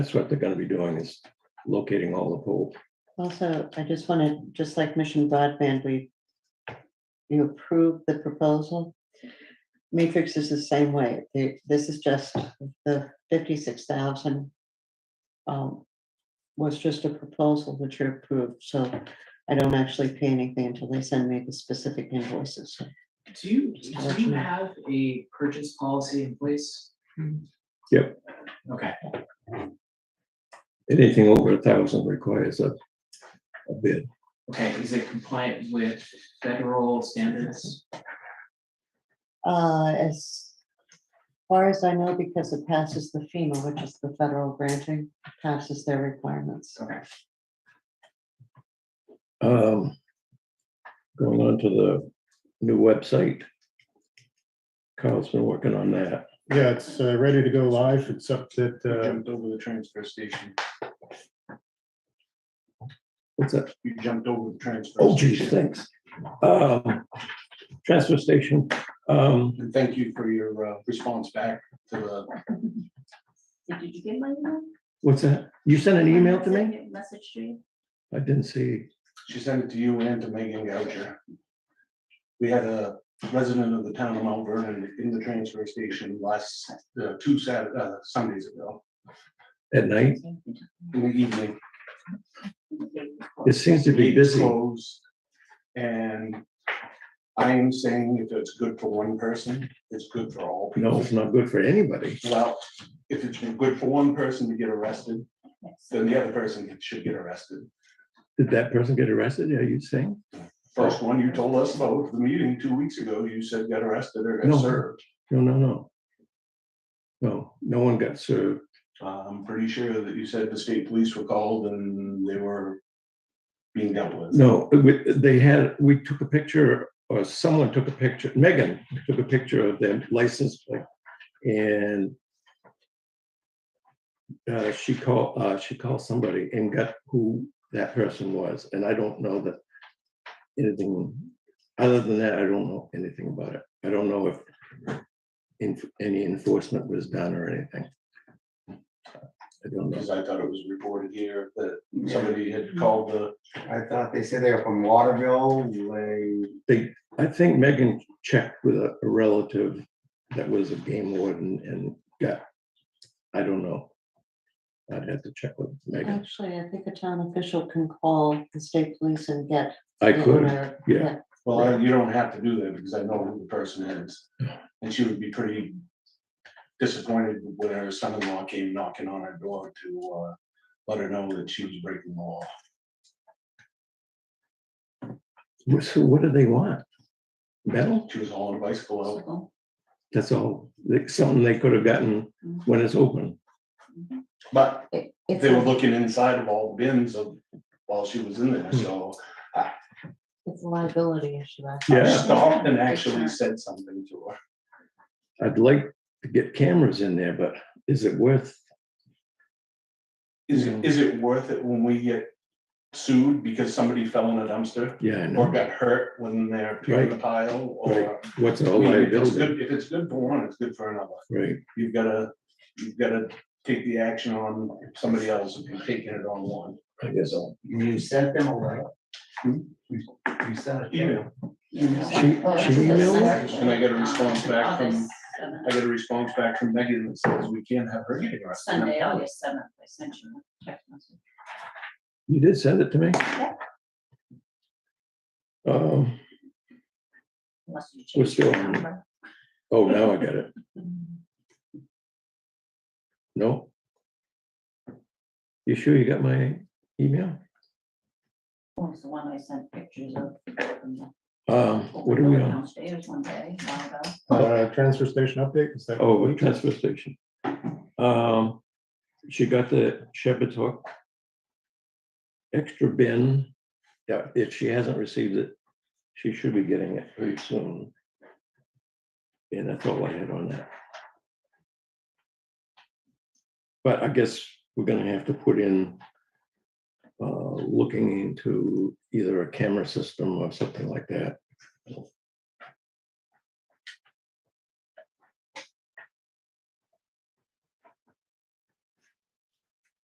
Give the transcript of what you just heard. That's what they're gonna be doing is locating all the poles. Also, I just wanted, just like Mission Broadband, we you approved the proposal. Matrix is the same way. The- This is just the fifty-six thousand um, was just a proposal which you approved, so I don't actually pay anything until they send me the specific invoices. Do you, do you Unfortunately. have a purchase policy in place? Yep. Okay, Anything over a thousand requires a, a bid. okay, is it compliant with federal standards? Uh, as far as I know, because it passes the FEMA, which is the federal granting, passes their requirements. Okay, Um, going on to the new website. Carl's been working on that. Yeah, it's uh, ready to go live, except that, uh, Jumped over the transfer station. What's that? You jumped over the transfer. Oh geez, station. thanks. Um, transfer station, um, And thank you for your uh, response back to the, Did you get my email? what's that? You sent an email to me? Message to you. I didn't see. she sent it to you and to Megan Goucher. We had a resident of the town of Mount Vernon in the transfer station last, uh, two Sat, uh, Sundays ago, At night, in the evening. it seems to be Gate busy. closed, And I am saying if it's good for one person, it's good for all people. No, it's not good for anybody. Well, if it's good for one person to get arrested, then the other person should get arrested. Did that person get arrested? Are you saying? First one, you told us though, at the meeting two weeks ago, you said got arrested or No. got served. No, no, no. No, no one got served. Uh, I'm pretty sure that you said the state police were called and they were being dealt with. No, we- they had, we took a picture, or someone took a picture, Megan took a picture of their license plate, and uh, she called, uh, she called somebody and got who that person was, and I don't know that anything, other than that, I don't know anything about it. I don't know if en- any enforcement was done or anything. I don't know. Because I thought it was reported here that somebody had called the, I thought they said they were from Waterville, they, they, I think Megan checked with a a relative that was a game warden and got, I don't know. I'd have to check with Megan. Actually, I think a town official can call the state police and get. I the could, owner. yeah. well, I- you don't have to do that because I know who the person is. And she would be pretty disappointed when her son-in-law came knocking on her door to, uh, let her know that she was breaking the law. Wh- So what do they want? Metal? She was hauling a bicycle out That's all, Like, something they could have gotten when it's open. But It- It's, they were a- looking inside of all the bins of, while she was in there, so It's a liability issue. I I Yeah, stopped and actually said something to her. I'd like to get cameras in there, but is it worth, Is it, is it worth it when we get sued because somebody fell in a dumpster? yeah, I know, Or got hurt when they're picking the pile or? what's I all mean, If it's liability, good- if it's good for one, it's good for another. right? You've gotta, you've gotta take the action on somebody else if you're taking it on one. I guess so. you sent them a letter. You sent it. Email. She, she emailed it? And I got a response back from, August seventh, I got a response back from Megan that says we can't have her getting arrested. Sunday, August seventh, I sent you a text message. You did send it to me? Um, Unless you We're change still the on. number. oh, now I got it. No? You sure you got my email? What was the one I sent pictures of? from Um, the- what are we on? Downstairs one day, a while ago. uh, transfer station update. is that- Oh, the transfer station. Um, she got the Shepherd's Hook extra bin. Yeah, if she hasn't received it, she should be getting it pretty soon. And that's all I had on that. But I guess we're gonna have to put in uh, looking into either a camera system or something like that.